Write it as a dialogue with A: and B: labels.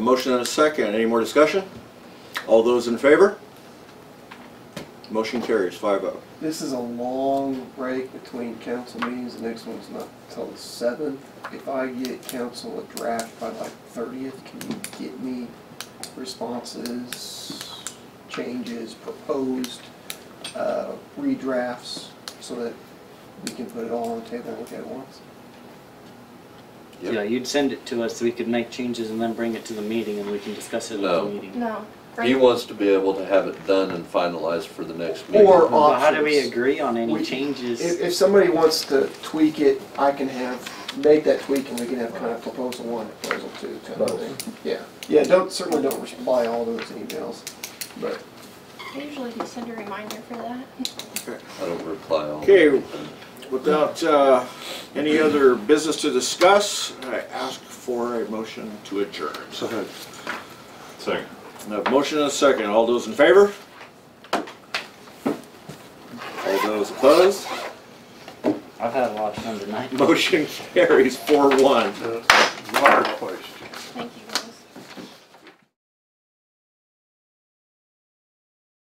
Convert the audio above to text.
A: Motion and a second. Any more discussion? All those in favor? Motion carries five oh.
B: This is a long break between council meetings, the next one's not till the seventh. If I get council a draft by like thirtieth, can you get me responses, changes, proposed, uh, redrafts, so that we can put it all on the table and look at it once?
A: Yep.
C: Yeah, you'd send it to us, so we could make changes and then bring it to the meeting and we can discuss it at the
D: No.
C: meeting.
E: No.
D: He
E: Right.
D: wants to be able to have it done and finalized for the next meeting.
B: Or
C: Well, how do we
B: Options.
C: agree on any
B: We- If,
C: changes?
B: if somebody wants to tweak it, I can have, make that tweak and we can have kind of proposal one, proposal two, kind of thing. Yeah, yeah, don't, certainly don't reply all those emails, but
E: I usually do send a reminder for that.
D: I don't reply all.
A: Okay, without uh, any other business to discuss, I ask for a motion to adjourn.
F: Second.
A: I have motion and a second. All those in favor? All those opposed?
C: I've had a lot of fun tonight.
A: Motion carries four one.
F: Water question.